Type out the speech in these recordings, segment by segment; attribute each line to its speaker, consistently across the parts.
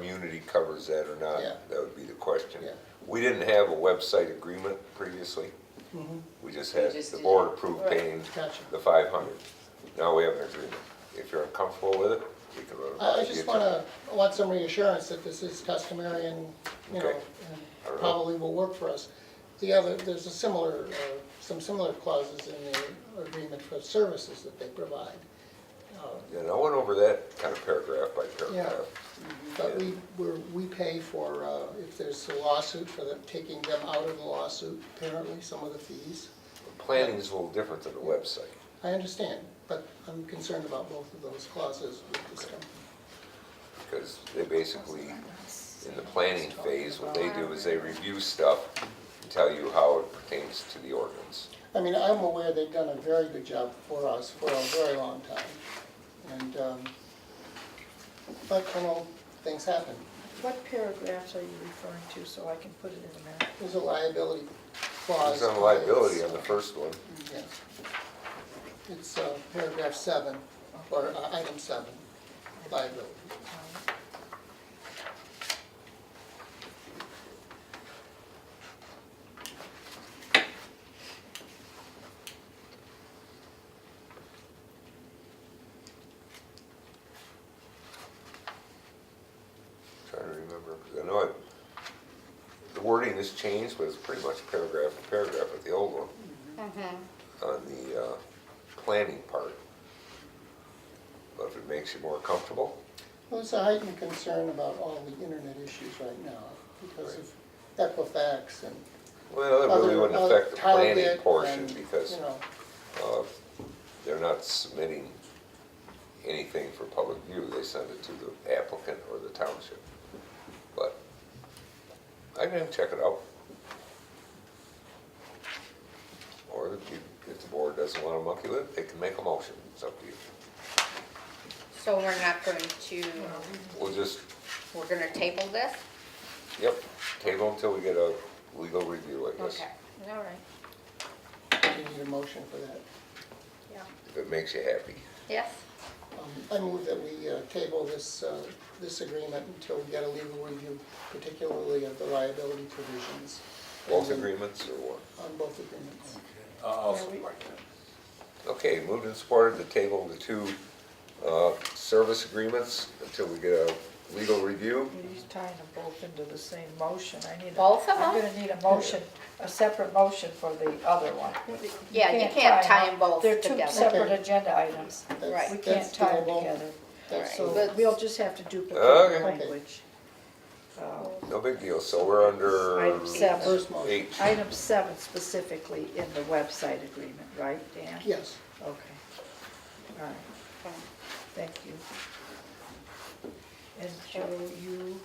Speaker 1: community covers that or not,
Speaker 2: Yeah.
Speaker 1: that would be the question.
Speaker 2: Yeah.
Speaker 1: We didn't have a website agreement previously.
Speaker 2: Mm-hmm.
Speaker 1: We just
Speaker 3: We
Speaker 1: had,
Speaker 3: just
Speaker 1: the
Speaker 3: did
Speaker 1: board
Speaker 3: it.
Speaker 1: approved
Speaker 3: Right.
Speaker 1: paying
Speaker 2: Gotcha.
Speaker 1: the five hundred. Now we have an agreement. If you're uncomfortable with it, we can run it by
Speaker 2: I I
Speaker 1: the
Speaker 2: just
Speaker 1: attorney.
Speaker 2: wanna, I want some reassurance that this is customary and, you know,
Speaker 1: Okay. All
Speaker 2: and
Speaker 1: right.
Speaker 2: probably will work for us. The other, there's a similar, uh, some similar clauses in the agreement for services that they provide.
Speaker 1: And I went over that kind of paragraph by paragraph.
Speaker 2: But we, we're, we pay for, uh, if there's a lawsuit, for them, taking them out of the lawsuit, apparently, some of the fees.
Speaker 1: Planning is a little different than the website.
Speaker 2: I understand, but I'm concerned about both of those clauses with this company.
Speaker 1: because they basically, in the planning phase, what they do is they review stuff and tell you how it pertains to the ordinance.
Speaker 2: I mean, I'm aware they've done a very good job for us for a very long time. And, um, but, you know, things happen.
Speaker 4: What paragraphs are you referring to, so I can put it in the map?
Speaker 2: There's a liability clause.
Speaker 1: There's no liability on the first one.
Speaker 2: Yes. It's uh, paragraph seven, or uh, item seven, liability.
Speaker 1: Trying to remember, 'cause I know it, the wording has changed, but it's pretty much paragraph for paragraph with the old one on the uh, planning part. But if it makes you more comfortable,
Speaker 2: Well, it's a heightened concern about all the internet issues right now because of Equifax and
Speaker 1: well, it
Speaker 2: other.
Speaker 1: really wouldn't affect the
Speaker 2: other-
Speaker 1: planning
Speaker 2: Target
Speaker 1: portion
Speaker 2: and,
Speaker 1: because
Speaker 2: You know,
Speaker 1: Uh, They're not submitting anything for public view, they send it to the applicant or the township. But I can check it out. Or if you, if the board doesn't want to monkey with it, they can make a motion, it's up to you.
Speaker 3: So we're not going to,
Speaker 1: We'll just,
Speaker 3: we're gonna table this?
Speaker 1: yep, table until we get a legal review, I guess,
Speaker 3: Okay, all right,
Speaker 2: you need a motion for that.
Speaker 3: yeah,
Speaker 1: if it makes you happy.
Speaker 3: yes,
Speaker 2: Um, I move that we uh, table this, uh, this agreement until we get a legal review, particularly of the liability provisions.
Speaker 1: Both agreements or one?
Speaker 2: On both agreements.
Speaker 5: I'll
Speaker 4: Are we-
Speaker 5: support that.
Speaker 1: Okay, moved and supported to table the two uh, service agreements until we get a legal review.
Speaker 4: You're tying them both into the same motion, I need. a-
Speaker 3: Both of
Speaker 4: I'm
Speaker 3: them?
Speaker 4: gonna need a motion, a separate motion for the other one.
Speaker 3: Yeah, you can't tie 'em both
Speaker 4: They're
Speaker 3: together.
Speaker 4: two separate agenda items.
Speaker 2: That's-
Speaker 3: Right.
Speaker 4: We
Speaker 2: that's
Speaker 4: can't tie them
Speaker 2: doable.
Speaker 4: together.
Speaker 2: That's
Speaker 3: All
Speaker 2: so,
Speaker 3: right.
Speaker 4: So we'll just have to duplicate the
Speaker 1: Okay.
Speaker 4: language. Uh,
Speaker 1: No big deal, so we're under
Speaker 4: Item seven,
Speaker 2: first motion,
Speaker 1: H.
Speaker 4: item seven specifically in the website agreement, right, Dan?
Speaker 2: yes.
Speaker 4: Okay. All right,
Speaker 3: Okay.
Speaker 4: thank you. And Joe, you,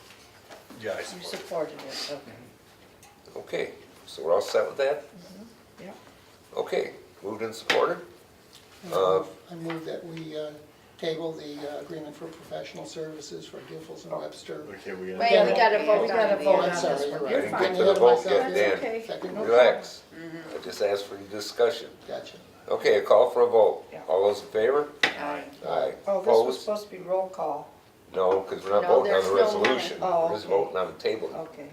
Speaker 5: Yeah, I
Speaker 4: you
Speaker 5: support it.
Speaker 4: supported it, okay.
Speaker 1: Okay, so we're all set with that?
Speaker 4: Yeah.
Speaker 1: Okay, moved and supported? Uh,
Speaker 2: I move that we uh, table the uh, agreement for professional services for Giffords and Webster.
Speaker 5: Okay, we got.
Speaker 3: Wait, we gotta vote
Speaker 4: We gotta vote
Speaker 3: on the-
Speaker 4: on this
Speaker 2: Sorry,
Speaker 4: one.
Speaker 2: you're
Speaker 1: I
Speaker 4: You're
Speaker 2: right.
Speaker 1: didn't
Speaker 4: fine.
Speaker 1: get to the vote yet,
Speaker 4: That's
Speaker 1: Dan.
Speaker 4: okay. Oh,
Speaker 2: Second
Speaker 4: No Mm-hmm.
Speaker 2: motion.
Speaker 1: Relax, I just asked for your discussion.
Speaker 2: Gotcha.
Speaker 1: Okay, a call for a vote.
Speaker 4: Yeah.
Speaker 1: All those in favor?
Speaker 3: Aye.
Speaker 1: Aye.
Speaker 4: Oh, this was
Speaker 1: Opposed?
Speaker 4: supposed to be roll call,
Speaker 1: No, because we're not
Speaker 3: No,
Speaker 1: voting on the
Speaker 3: there's no money.
Speaker 1: resolution,
Speaker 4: Oh,
Speaker 1: we're just
Speaker 4: okay.
Speaker 1: voting on the table.
Speaker 4: okay.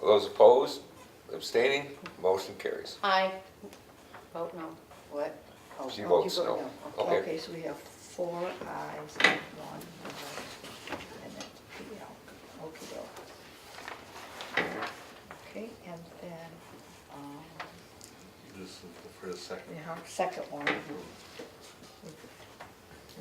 Speaker 1: All Those opposed, abstaining, motion carries.
Speaker 3: Aye. Vote no. What? Oh,
Speaker 1: She
Speaker 3: you
Speaker 1: votes
Speaker 3: vote
Speaker 1: no. Okay.
Speaker 4: Okay, so we have four ayes and one no, and then PL, okey Okay, and then, um,
Speaker 5: This is for the second.
Speaker 4: yeah, second one,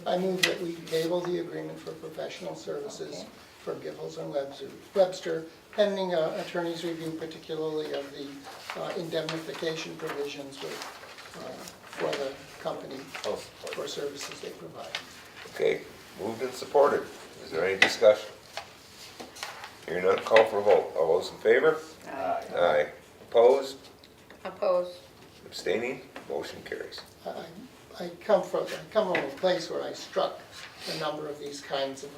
Speaker 2: I move that we table the agreement for professional services
Speaker 4: Okay.
Speaker 2: for Giffords and Webster- Webster pending uh, attorney's review, particularly of the uh, indemnification provisions with, uh, for the company
Speaker 1: I'll support.
Speaker 2: for services they provide.
Speaker 1: Okay, moved and supported. Is there any discussion? Hearing none, call for a vote. All those in favor?
Speaker 3: Aye.
Speaker 1: Aye. Opposed?
Speaker 3: Opposed?
Speaker 1: Abstaining? Motion carries.
Speaker 2: I- I I come from, I come from a place where I struck a number of these kinds of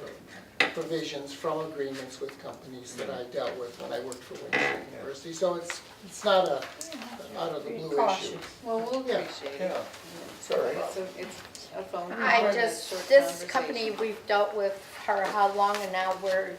Speaker 2: provisions from agreements with companies that I dealt with when I worked for Wayne State University. So it's, it's not a out of the
Speaker 4: be
Speaker 2: blue
Speaker 4: cautious.
Speaker 2: issue.
Speaker 6: Well, we'll
Speaker 2: Yeah.
Speaker 6: appreciate it.
Speaker 5: Yeah.
Speaker 6: It's all right. It's a, it's a phone.
Speaker 3: I just, this company we've dealt with for how long and now we're